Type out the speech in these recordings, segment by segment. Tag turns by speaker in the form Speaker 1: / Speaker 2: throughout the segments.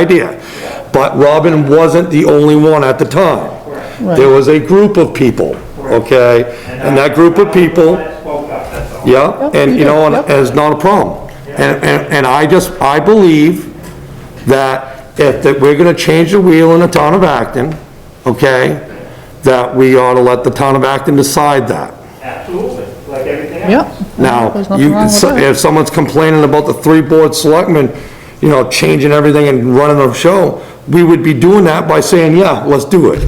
Speaker 1: idea. But Robin wasn't the only one at the time. There was a group of people, okay? And that group of people,
Speaker 2: I spoke up, that's all.
Speaker 1: yeah, and you know, and it's not a problem. And, and, and I just, I believe that if, that we're gonna change the wheel in the town of Acton, okay? That we ought to let the town of Acton decide that.
Speaker 2: Absolutely, like everything else.
Speaker 3: Yep.
Speaker 1: Now,
Speaker 3: There's nothing
Speaker 1: you,
Speaker 3: wrong with that.
Speaker 1: if someone's complaining about the three board selectmen, you know, changing everything and running the show, we would be doing that by saying, yeah, let's do it.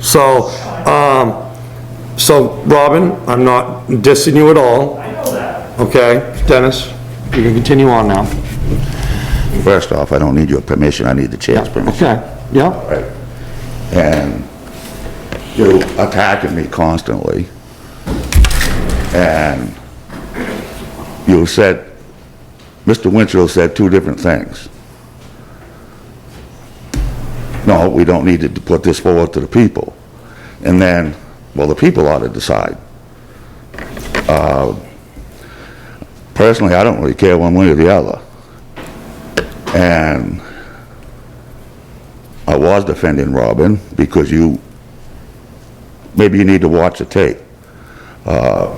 Speaker 1: So, um, so Robin, I'm not dissing you at all,
Speaker 2: I know that.
Speaker 1: okay? Dennis, you can continue on now.
Speaker 4: First off, I don't need your permission, I need the chair's permission.
Speaker 1: Okay, yeah,
Speaker 4: Right. And you're attacking me constantly. And you said, Mr. Winchell said two different things. No, we don't need to put this forward to the people. And then, well, the people ought to decide. Uh, Personally, I don't really care one way or the other. And I was defending Robin because you, maybe you need to watch the tape. Uh,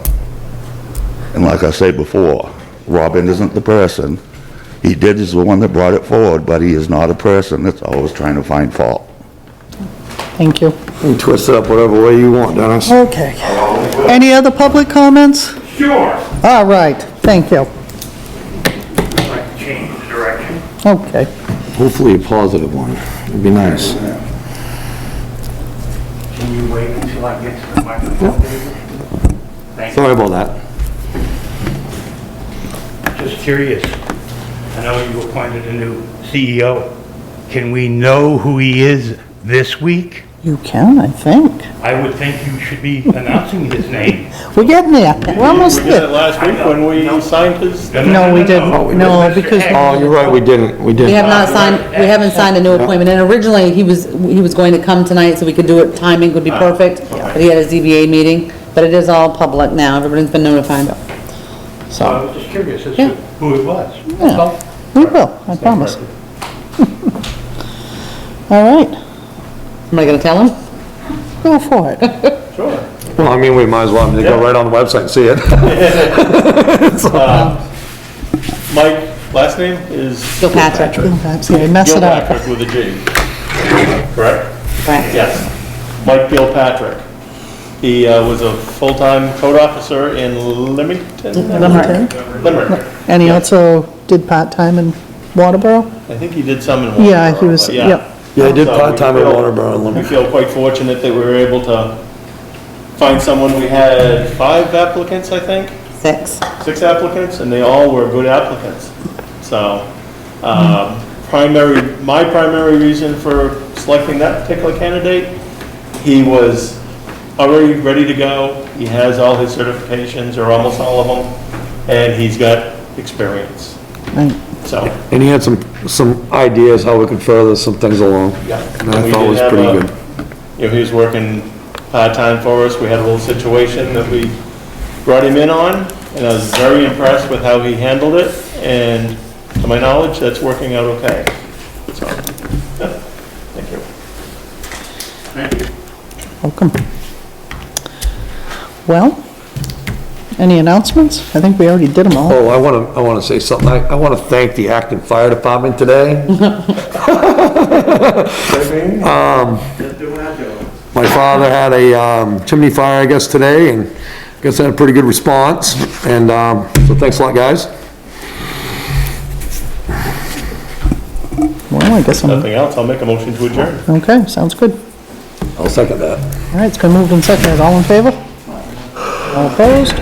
Speaker 4: And like I said before, Robin isn't the person. He did is the one that brought it forward, but he is not a person that's always trying to find fault.
Speaker 3: Thank you.
Speaker 1: you can twist it up whatever way you want, Dennis.
Speaker 3: Okay. Any other public comments?
Speaker 2: Sure.
Speaker 3: All right, thank you.
Speaker 2: Like change the direction.
Speaker 3: Okay.
Speaker 1: Hopefully a positive one, it'd be nice.
Speaker 2: Can you wait until I get to the microphone? Thank you.
Speaker 1: Sorry about that.
Speaker 2: Just curious. I know you appointed a new CEO. Can we know who he is this week?
Speaker 3: You can, I think.
Speaker 2: I would think you should be announcing his name.
Speaker 3: We're getting there. We're almost
Speaker 5: We did it
Speaker 3: there.
Speaker 5: last week when we signed his,
Speaker 3: No, we didn't. No, because-
Speaker 1: Oh, you're right, we didn't, we
Speaker 6: We have
Speaker 1: didn't.
Speaker 6: not signed, we haven't signed a new appointment, and originally, he was, he was going to come tonight, so we could do it, timing would be perfect, but he had a ZBA meeting, but it is all public now, everybody's been notified.
Speaker 2: So I was just curious as to
Speaker 6: Yeah.
Speaker 2: who it was. That's all.
Speaker 3: Oh. Yeah, We will, I promise. All right,
Speaker 6: Am I gonna tell him?
Speaker 3: go for it.
Speaker 1: Well, I mean, we might as well, just go right on the website and see it.
Speaker 5: Mike, last name is
Speaker 6: Gil Patrick.
Speaker 3: That's it, mess it up.
Speaker 5: Gilpatrick with a G, correct?
Speaker 6: Right.
Speaker 5: Yes, Mike Gilpatrick. He uh, was a full-time code officer in Leamington,
Speaker 3: Okay.
Speaker 5: Limerick.
Speaker 3: And he also did part-time in Waterboro?
Speaker 5: I think he did some in Waterboro.
Speaker 3: Yeah, he was,
Speaker 5: but
Speaker 3: yeah.
Speaker 1: Yeah, I did
Speaker 5: So we
Speaker 1: part-time at
Speaker 5: feel-
Speaker 1: Waterboro and
Speaker 5: We
Speaker 1: Lim-
Speaker 5: feel quite fortunate that we were able to find someone. We had five applicants, I think.
Speaker 6: Six.
Speaker 5: six applicants, and they all were good applicants. So, um, primary, my primary reason for selecting that particular candidate, he was already ready to go, he has all his certifications, or almost all of them, and he's got experience,
Speaker 3: Right.
Speaker 5: so.
Speaker 1: And he had some, some ideas how we could further some things along. And I
Speaker 5: We
Speaker 1: thought it
Speaker 5: did
Speaker 1: was
Speaker 5: have
Speaker 1: pretty
Speaker 5: a-
Speaker 1: good.
Speaker 5: You know, he was working part-time for us, we had a little situation that we brought him in on, and I was very impressed with how he handled it, and to my knowledge, that's working out okay. So, yeah, thank you.
Speaker 3: Welcome. Well, any announcements? I think we already did them all.
Speaker 1: Oh, I want to, I want to say something. I, I want to thank the Acton Fire Department today.
Speaker 2: Just doing what I do.
Speaker 1: Um, My father had a um, chimney fire, I guess, today, and I guess had a pretty good response. And, um, so thanks a lot, guys.
Speaker 3: Well, I guess I'm,
Speaker 5: Nothing else, I'll make a motion to adjourn.
Speaker 3: okay, sounds good.
Speaker 1: I'll second that.
Speaker 3: All right, it's been moved and seconded. All in favor? All opposed?